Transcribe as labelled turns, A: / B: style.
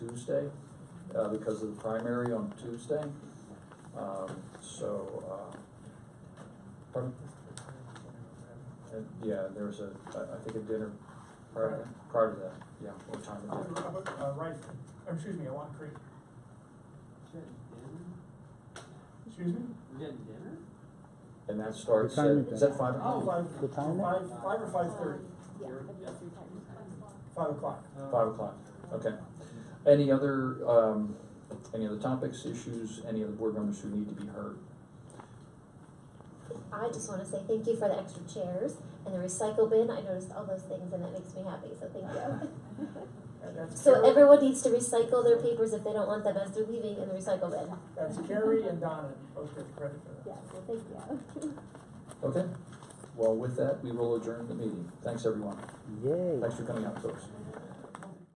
A: Tuesday, uh, because of the primary on Tuesday. Um, so, uh, and, yeah, there's a, I, I think a dinner prior, prior to that, yeah, what time
B: Uh,
A: of day?
B: uh, Right, uh, excuse me, I want Creek, excuse me?
C: We had dinner?
A: And that starts at,
D: time is
A: is that
D: that?
A: five
B: Oh,
A: o'clock?
B: five,
D: The time?
B: five, five or five thirty,
E: Yeah,
C: You're-
E: I guess it's time.
B: five o'clock.
A: Five o'clock, okay. Any other, um, any other topics, issues, any other board members who need to be heard?
F: I just wanna say thank you for the extra chairs and the recycle bin, I noticed all those things and that makes me happy, so thank you.
B: And that's
F: So
B: Carrie-
F: everyone needs to recycle their papers if they don't want them as they're leaving in the recycle bin.
B: That's Carrie and Donna, both get credit for
F: Yeah,
B: that.
F: well, thank you.
A: Okay, well, with that, we will adjourn the meeting. Thanks, everyone.
D: Yay.
A: Thanks for coming out, folks.